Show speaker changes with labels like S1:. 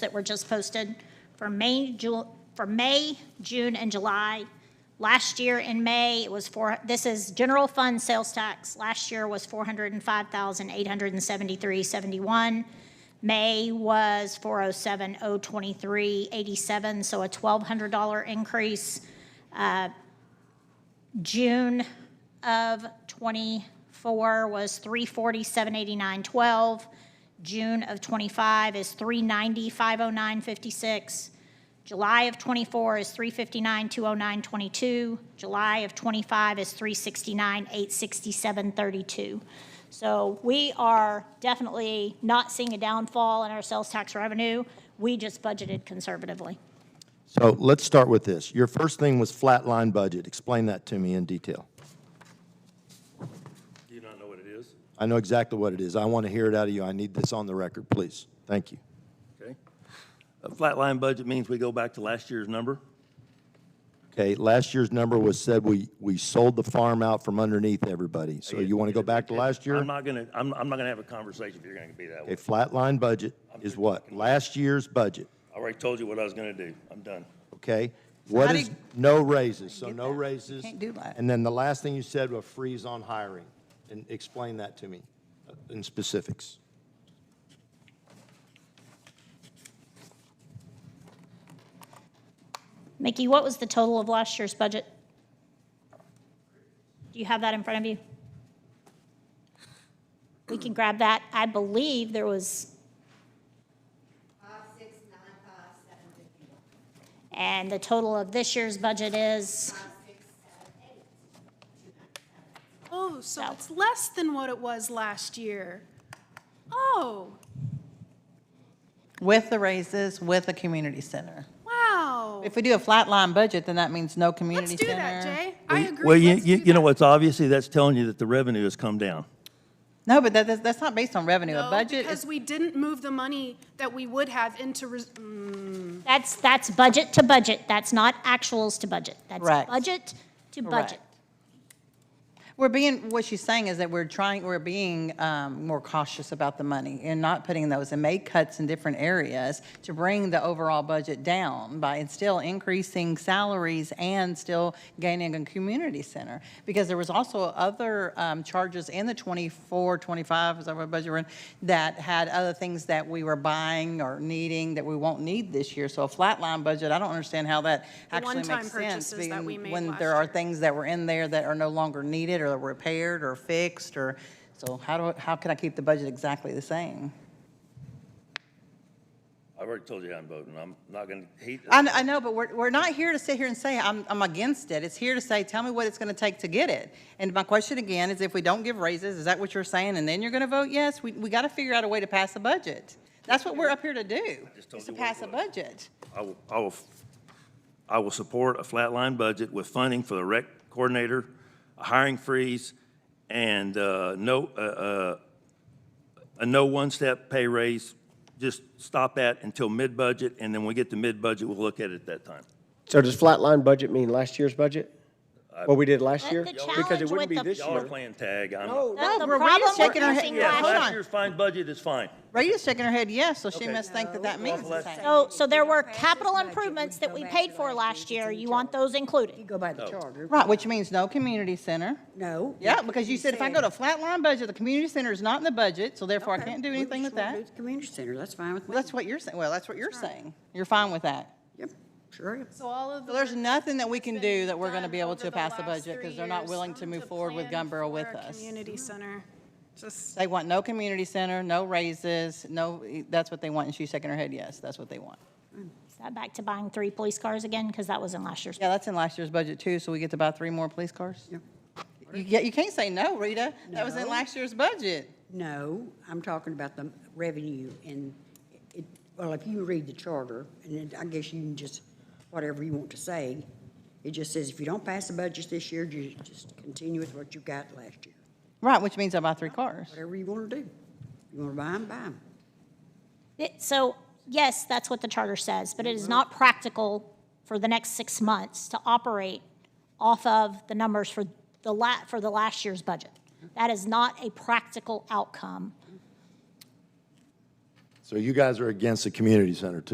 S1: that were just posted for May, Ju, for May, June, and July. Last year in May, it was four, this is general fund sales tax. Last year was four hundred and five thousand, eight hundred and seventy-three, seventy-one. May was four oh seven, oh twenty-three, eighty-seven, so a twelve hundred dollar increase. Uh, June of '24 was 347.89.12. June of '25 is 390.509.56. July of '24 is 359.209.22. July of '25 is 369.867.32. So we are definitely not seeing a downfall in our sales tax revenue. We just budgeted conservatively.
S2: So let's start with this. Your first thing was flatline budget. Explain that to me in detail.
S3: Do you not know what it is?
S2: I know exactly what it is. I want to hear it out of you. I need this on the record, please. Thank you.
S3: Okay. A flatline budget means we go back to last year's number.
S2: Okay, last year's number was said we, we sold the farm out from underneath everybody. So you want to go back to last year?
S3: I'm not gonna, I'm, I'm not gonna have a conversation if you're gonna be that
S2: A
S3: way.
S2: flatline budget is what? Last year's budget,
S3: I already told you what I was gonna do. I'm done.
S2: okay? What
S4: How
S2: is,
S4: did-
S2: no raises, so
S4: get
S2: no
S4: that. You
S2: raises.
S4: can't do that.
S2: And then the last thing you said was freeze on hiring. And explain that to me uh, in specifics.
S1: Mickey, what was the total of last year's budget? Do you have that in front of you? We can grab that. I believe there was,
S5: Five, six, nine, five, seven, fifty-one.
S1: and the total of this year's budget is,
S5: Five, six, seven, eight, two, nine, seven.
S6: Oh, so
S1: So-
S6: it's less than what it was last year. Oh,
S4: With the raises, with the community center.
S6: wow.
S4: If we do a flat line budget, then that means no
S6: Let's
S4: community
S6: do
S4: center.
S6: that, Jay. I agree.
S3: Well, you,
S6: Let's
S3: you,
S6: do
S3: you know
S6: that.
S3: what's obviously, that's telling you that the revenue has come down.
S4: No, but that, that's, that's not based on revenue. A
S6: No,
S4: budget
S6: Because
S4: is,
S6: we didn't move the money that we would have into, res- mm,
S1: that's, that's budget to budget. That's not actuals to budget. That's
S4: Correct.
S1: budget to budget.
S4: Correct. we're being, what she's saying is that we're trying, we're being, um, more cautious about the money and not putting those and make cuts in different areas to bring the overall budget down by and still increasing salaries and still gaining a community center. Because there was also other, um, charges in the 24, 25, is that what budget we're in, that had other things that we were buying or needing that we won't need this year. So a flat line budget, I don't understand how that
S6: The
S4: actually makes sense.
S6: one-time purchases that
S4: being-
S6: we made
S4: When
S6: last
S4: there are
S6: year.
S4: things that were in there that are no longer needed or repaired or fixed or, so how do, how can I keep the budget exactly the same?
S3: I've already told you how I'm voting. I'm not gonna hate.
S4: I, kn- I know, but we're, we're not here to sit here and say, I'm, I'm against it. It's here to say, tell me what it's gonna take to get it. And my question again is if we don't give raises, is that what you're saying? And then you're gonna vote yes? We, we gotta figure out a way to pass a budget. That's what we're up here to do,
S3: just told
S4: is to
S3: you what it
S4: pass a
S3: was.
S4: budget.
S3: I will, I will, I will support a flatline budget with funding for the rec coordinator, a hiring freeze, and, uh, no, uh, uh, a no one-step pay raise. Just stop that until mid-budget, and then when we get to mid-budget, we'll look at it at that time.
S7: So does flatline budget mean last year's budget? What we did last
S1: But
S7: year?
S1: the
S7: Because
S1: challenge
S7: it wouldn't
S1: with
S7: be
S1: the-
S7: this
S3: Y'all are
S7: year.
S3: playing tag. I'm.
S1: The-
S4: No,
S1: the
S4: we're- we're
S1: problem
S4: just shaking
S1: we're
S4: our head.
S1: facing
S3: Yeah,
S4: Hold
S1: last-
S3: last
S4: on.
S3: year's fine budget is fine.
S4: Rita's shaking her head yes, so she
S3: Okay. Uh,
S4: must think that that means the
S3: let's-
S4: same.
S1: So, so there were capital
S8: budget, we
S1: improvements
S8: go
S1: that we
S8: back
S1: paid
S8: to
S1: for
S8: last
S1: last
S8: year,
S1: year.
S8: it's in
S1: You want those
S8: You
S1: included?
S8: go by the charter.
S4: Right, which means no community center.
S8: No.
S4: Oh. Yeah, because you said if I go to flatline budget, the community center is not in the budget, so therefore I
S8: Okay,
S4: can't do
S8: we
S4: anything
S8: just
S4: with
S8: wanna
S4: that.
S8: do the Community center, that's fine with me.
S4: Well, That's what you're saying, well, that's what you're saying. You're fine with that.
S8: Yep, sure. am.
S6: so all of the.
S4: So there's
S6: work
S4: nothing that we can
S6: that's
S4: do
S6: been
S4: that we're gonna
S6: done
S4: be able
S6: over
S4: to
S6: the
S4: pass a
S6: last
S4: budget
S6: three
S4: because they're not
S6: years
S4: willing to move forward with
S6: plan
S4: Gumboro with
S6: for a
S4: us.
S6: Community center. Just,
S4: They want no community center, no raises, no, that's what they want, and she's shaking her head yes, that's what they want.
S1: Is that back to buying three police cars again? Because that was in last year's.
S4: Yeah, that's in last year's budget too, so we get to buy three more police cars? You, yeah, you can't say no, Rita, that was in
S8: No.
S4: last year's budget.
S8: No, I'm talking about the revenue and it, well, if you read the charter, and it- I guess you can just, whatever you want to say, it just says if you don't pass the budget this year, you just continue with what you got last year.
S4: Right, which means I buy three cars.
S8: Whatever you want to do. You want to buy them, buy them.
S1: It- So, yes, that's what the charter says, but it is not practical for the next six months to operate off of the numbers for the la, for the last year's budget. That is not a practical outcome.
S2: So you guys are against the community center too?